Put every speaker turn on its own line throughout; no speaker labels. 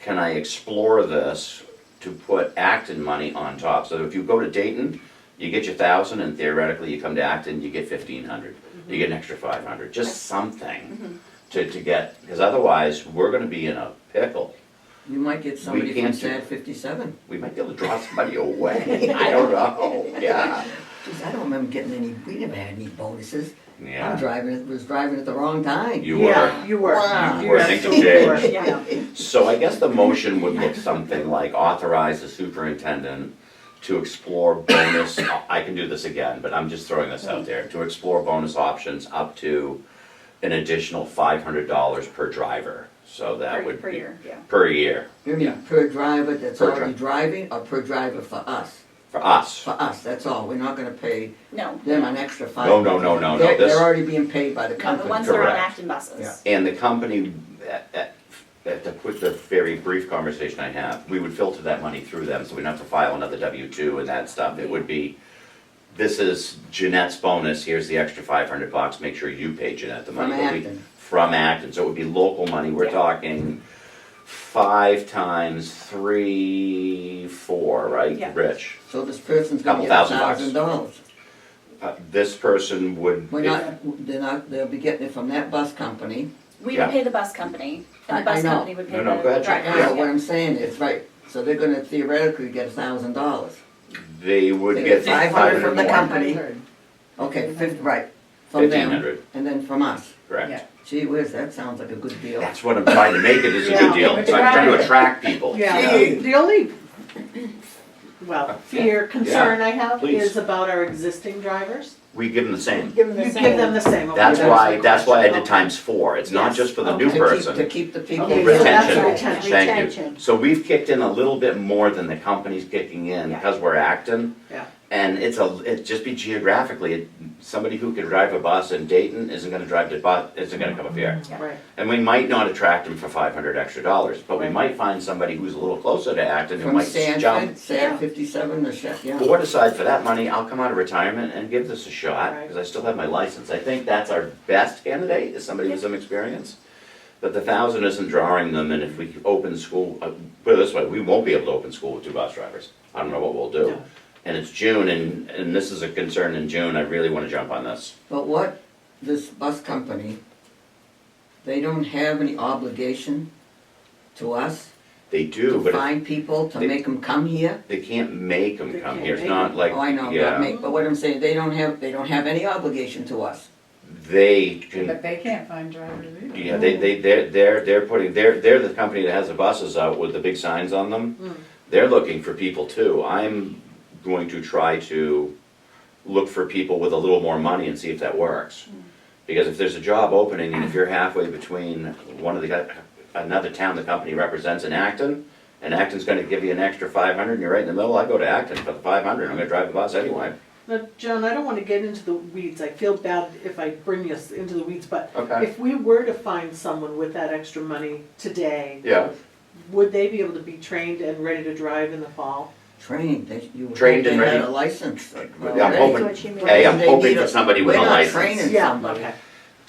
can I explore this to put Acton money on top? So if you go to Dayton, you get your thousand and theoretically you come to Acton, you get fifteen hundred. You get an extra five hundred, just something to, to get, because otherwise, we're gonna be in a pickle.
You might get somebody from
can't do-
SAD fifty-seven.
We might be able to draw somebody away, I don't know, yeah.
Geez, I don't remember getting any, we never had any bonuses. I'm
Yeah,
driving, was driving at the wrong time.
you
Yeah,
were.
you were.
Wow.
You were, thank you, Jay.
absolutely were, yeah.
So I guess the motion would look something like authorize the superintendent to explore bonus, I can do this again, but I'm just throwing this out there, to explore bonus options up to an additional five hundred dollars per driver, so that
Per
would be.
per year, yeah.
Per year,
You mean per driver that's
Per
already driving or per driver for us?
for us.
For us, that's all. We're not gonna pay
No,
them an extra five.
No, no, no, no, no,
They're,
this-
they're already being paid by the
no, the
company.
ones that are on
Correct.
Acton
Yeah.
buses.
And the company, at, at, at the, with the very brief conversation I have, we would filter that money through them, so we don't have to file another W two and that stuff, it would be, this is Jeanette's bonus, here's the extra five hundred bucks, make sure you pay Jeanette the money.
From
But we-
Acton.
From Acton, so it would be local money, we're
Yeah.
talking five times three, four,
Yeah.
right, Rich?
So this person's
Couple
gonna get a
thousand bucks.
thousand dollars.
Uh, this person would.
We're not, they're not, they'll be getting it from that bus company.
We
Yeah.
would pay the bus company,
I-
and
I
the bus
know.
company would pay
No,
the
no, go ahead,
driver.
Jay.
I
Yeah.
know what I'm saying is, right, so they're gonna theoretically get a thousand dollars.
They would get five hundred
from the
more,
company. Okay, fifty, right, from
fifteen
them,
hundred,
and then from us.
correct?
Gee whiz, that sounds like a good deal.
That's what I'm trying to make it is a
Yeah.
good deal. So I'm trying to attract people.
Yeah,
you know?
the only, well, fear, concern I have
Please.
is about our existing drivers.
We give them the same.
Give them
You give them the same. okay,
That's
that was
why,
my
that's why I
question.
did times four. It's not
Yes.
just for the
Okay.
new
To keep- To
person.
keep the people.
Okay, so that's
Retention,
right, retention.
thank you.
Retention.
So we've kicked in a little bit more than the company's kicking in because we're acting.
Yeah.
And it's a, it just be geographically, it- somebody who could drive a bus in Dayton isn't gonna drive the bus, isn't gonna come up here.
Yeah.
Right,
And we might not attract them for five hundred extra dollars, but we
Right.
might find somebody who's a little closer to Acton who
From
might jump
Sanford, San
Yeah.
fifty-seven, the chef, yeah.
board aside for that money, I'll come out of retirement and give this a shot,
Right.
because I still have my license. I think that's our best candidate, is somebody with some experience. But the thousand isn't drawing them, and if we open school, uh, put it this way, we won't be able to open school with two bus drivers. I don't know what we'll do.
No.
And it's June, and, and this is a concern in June, I really wanna jump on this.
But what, this bus company, they don't have any obligation to us
They do,
to
but if-
find people, to
they-
make them come here?
they can't make them
They
come
can't
here, it's
make
not
'em.
like,
Oh, I know, but
yeah,
make, but what I'm saying, they don't have, they don't have any obligation to us.
they can
But they can't find drivers either.
Yeah, they, they, they're, they're, they're putting, they're, they're the company that has the buses out with the big signs on
Mm.
them. They're looking for people too. I'm going to try to look for people with a little more money and see if that works. Because if there's a job opening and if you're halfway between one of the, guy- another town the company represents in Acton, and Acton's gonna give you an extra five hundred and you're right in the middle, I go to Acton for the five hundred, I'm gonna drive the bus anyway.
now, John, I don't wanna get into the weeds, I feel bad if I bring us into the weeds, but
Okay.
if we were to find someone with that extra money today,
Yeah.
would they be able to be trained and ready to drive in the fall?
Trained, they, you would
Trained
hope they
and
had
ready.
a license. like,
I'm
already.
hoping-
That's what she meant.
Hey, I'm
They
hoping
need
for
a-
somebody with a
We're not
license.
training
Yeah,
somebody.
okay.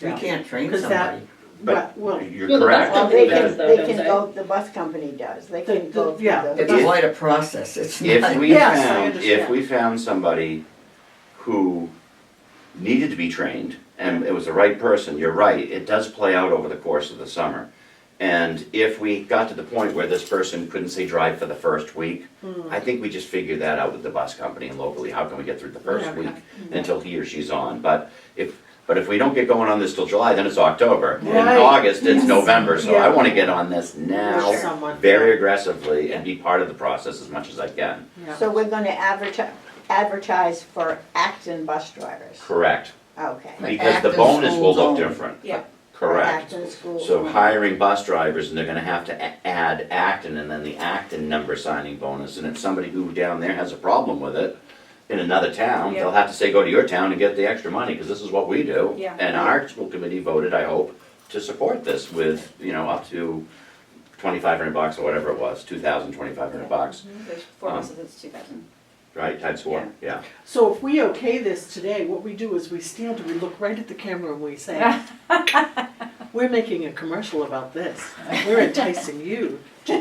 We
Yeah.
can't train
'Cause that-
somebody.
But-
But, well,
You're
You're the
correct.
bus
Well, they
company
can,
does though,
they
don't
can
they?
go, the bus company does, they
The-
can go
the-
through
yeah,
the.
the
It's
If-
quite a process, it's not.
If we
Yes, I
found, if
understand.
we found somebody who needed to be trained and it was the right person, you're right, it does play out over the course of the summer. And if we got to the point where this person couldn't say drive for the first week,
Hmm.
I think we just figure that out with the bus company and locally, how can we get through the first
Yeah, okay.
week until he or she's on? But if, but if we don't get going on this till July, then it's October. In
Right.
August, it's November, so I
Yeah.
wanna get on this
With
now,
someone.
very aggressively and be part of the process as much as I can.
yeah.
So we're gonna advertise, advertise for Acton bus drivers,
Correct,
okay.
But
because the
Acton
bonus will
schools
look
only.
different.
Yeah.
Correct.
Acton schools.
So hiring bus drivers, and they're gonna have to a- add Acton and then the Acton number signing bonus, and if somebody who down there has a problem with it in another town, they'll have to say, go to your town and get the extra money, cause this is what we do.
Yeah.
And our school committee voted, I hope, to support this with, you know, up to twenty-five hundred bucks or whatever it was, two thousand, twenty-five hundred
Yeah.
bucks,
There's four
Um,
buses, it's two thousand.
right, times four, yeah.
So if we okay this today, what we do is we stand and we look right at the camera and we say, we're making a commercial about this. We're enticing you